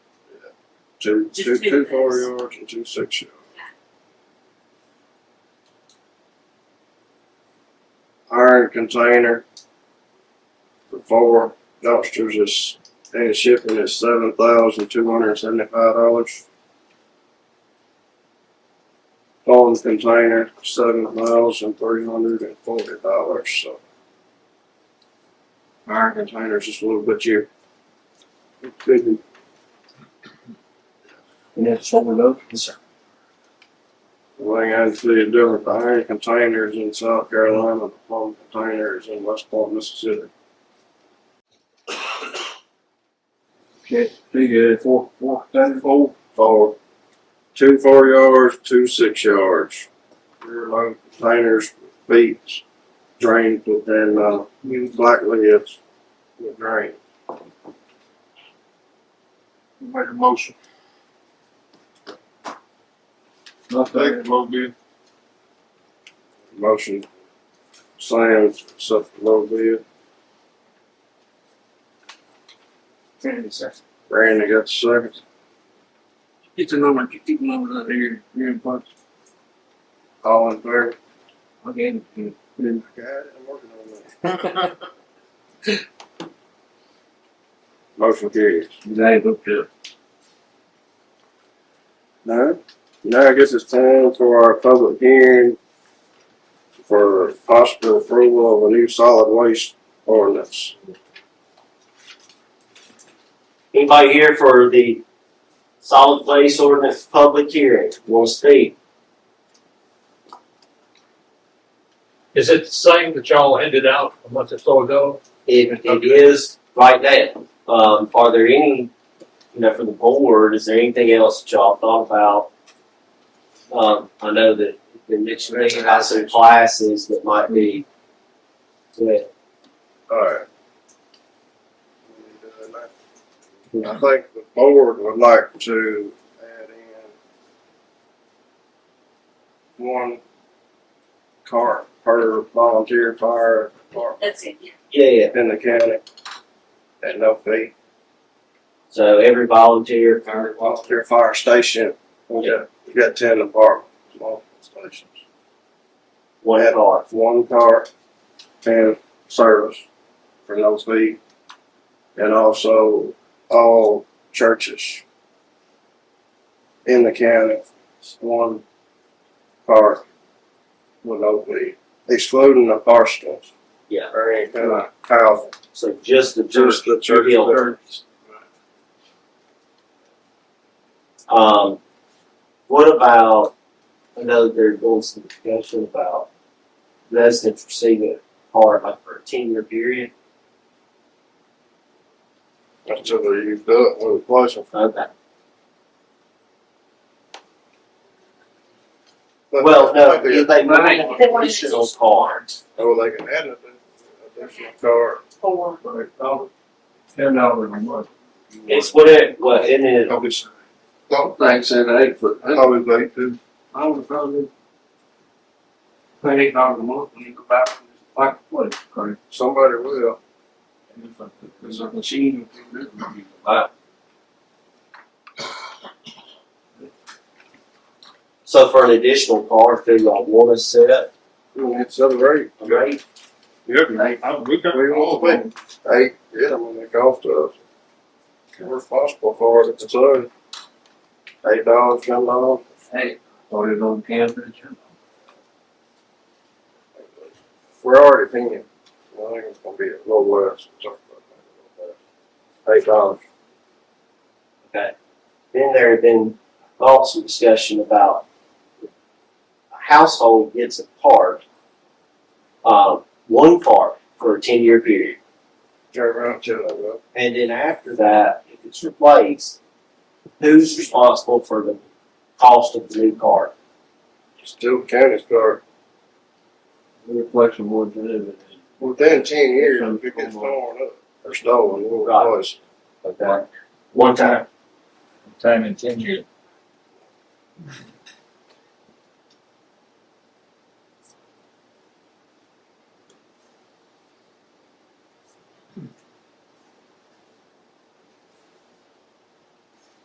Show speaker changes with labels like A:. A: Two,
B: Just
A: two,
B: two
A: two four
B: things.
A: yards and two six yards. Iron container for four dumpsters is, and shipping is seven thousand two hundred and seventy-five dollars. Phone container, seven thousand three hundred and forty dollars, so. Iron container's just a little bit cheaper. Could be
C: And that's what we love. Yes, sir.
A: Like I see it different, the iron containers in South Carolina, the palm containers in West Palm, Mississippi.
C: Okay, pretty good. Four, four, seven, four.
A: Four, two four yards, two six yards. Rear load containers, feet, drains within, uh, likely it's the drain.
D: Make a motion.
C: Nothing.
D: Take the low bid.
A: Motion, Sam, stuff a little bit.
C: Yes, sir.
A: Randy got the second.
C: Get the number, get the number out of here. You're in punch.
A: All in favor?
C: Again, you know,
A: Got it, I'm working on that.
D: Make
A: Motion carries.
C: they hooked up.
A: No. Now I guess it's time for our public hearing for possible approval of a new solid waste ordinance.
E: Anybody here for the solid waste ordinance public hearing? Want to speak?
F: Is it the same that y'all handed out a month or so ago?
E: It, it is right now. Um, are there any, you know, for the board, is there anything else that y'all thought about? Um, I know that you been mentioning about some classes that might be, yeah,
A: Alright. uh, I think the board would like to add in one car per volunteer fire department
B: That's it, yeah.
E: yeah.
A: in the county at no fee.
E: So every volunteer, current
A: Well, their fire station, we got, we got ten apartments, multiple stations.
E: one car.
A: One car and service for no fee. And also all churches in the county, one car with no fee, excluding the parsonage.
E: Yeah.
A: Or any kind of house,
E: So just the
A: just the church.
E: Hill. Um, what about, I know there's been some discussion about residents receiving a card like for a ten year period.
A: Until you do it with a license.
E: Okay. Well, no, if they
C: Right.
E: want additional cards,
A: Oh, they can add it, additional car.
B: Or
C: Ten dollars a month.
E: it's what it, what, and it,
D: Public sign.
A: Don't think so, eight foot.
D: Public light too.
C: I was probably pay eight dollars a month when you go back from this black place. Correct.
A: Somebody will.
C: And if I took this up machine, it would be a lot.
E: so for an additional card, do y'all wanna set up
A: It's other rate.
E: a rate?
D: Yeah, I- we got
A: We
D: all
A: all
D: of them.
A: win. Eight, yeah, when they cost us. We're responsible for it if it's owed. Eight dollars, ten dollars.
C: Hey, started on campus. you know.
A: We're already paying. I think it's gonna be a little less. Sorry about that, a little less. Eight dollars.
E: Okay. Then there had been also discussion about a household gets a card, um, one card for a ten year period.
A: Turn around, ten dollars.
E: And then after that, if it's replaced, who's responsible for the cost of the new card?
A: Still county car.
C: We're flexible to live in.
A: Within ten years, if it gets torn up or stolen, we'll
E: Right.
A: always.
E: Okay. One time.
C: Time in ten years.